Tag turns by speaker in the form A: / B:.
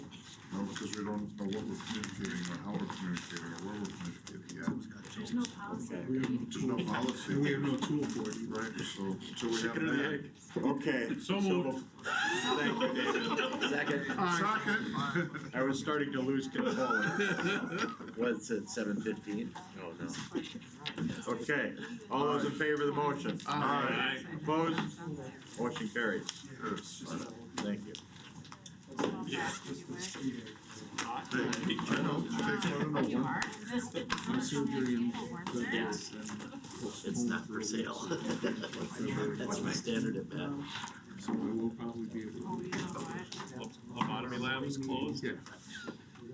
A: because we don't know what we're communicating or how we're communicating or where we're communicating yet.
B: There's no policy.
C: We have no
A: There's
C: tool,
A: no policy.
C: and we have no tool for it either.
A: Right, so, so we have that.
D: Okay.
C: So moved.
D: Thank you, Dave.
C: All right.
A: Second.
D: I was starting to lose control. What's it, seven fifteen? Oh, no. Okay, all those in favor of the motion?
A: Aye.
D: Opposed? Motion carries. Thank you.
A: I know, takes one to know
B: You
A: one.
B: are? Is this, is this something that people work there?
E: Yes. It's not for sale. That's my standard at bat.
C: So we will probably be able
B: Oh,
C: to.
B: you know what?
F: Lobotomy lab is closed.
C: Yeah.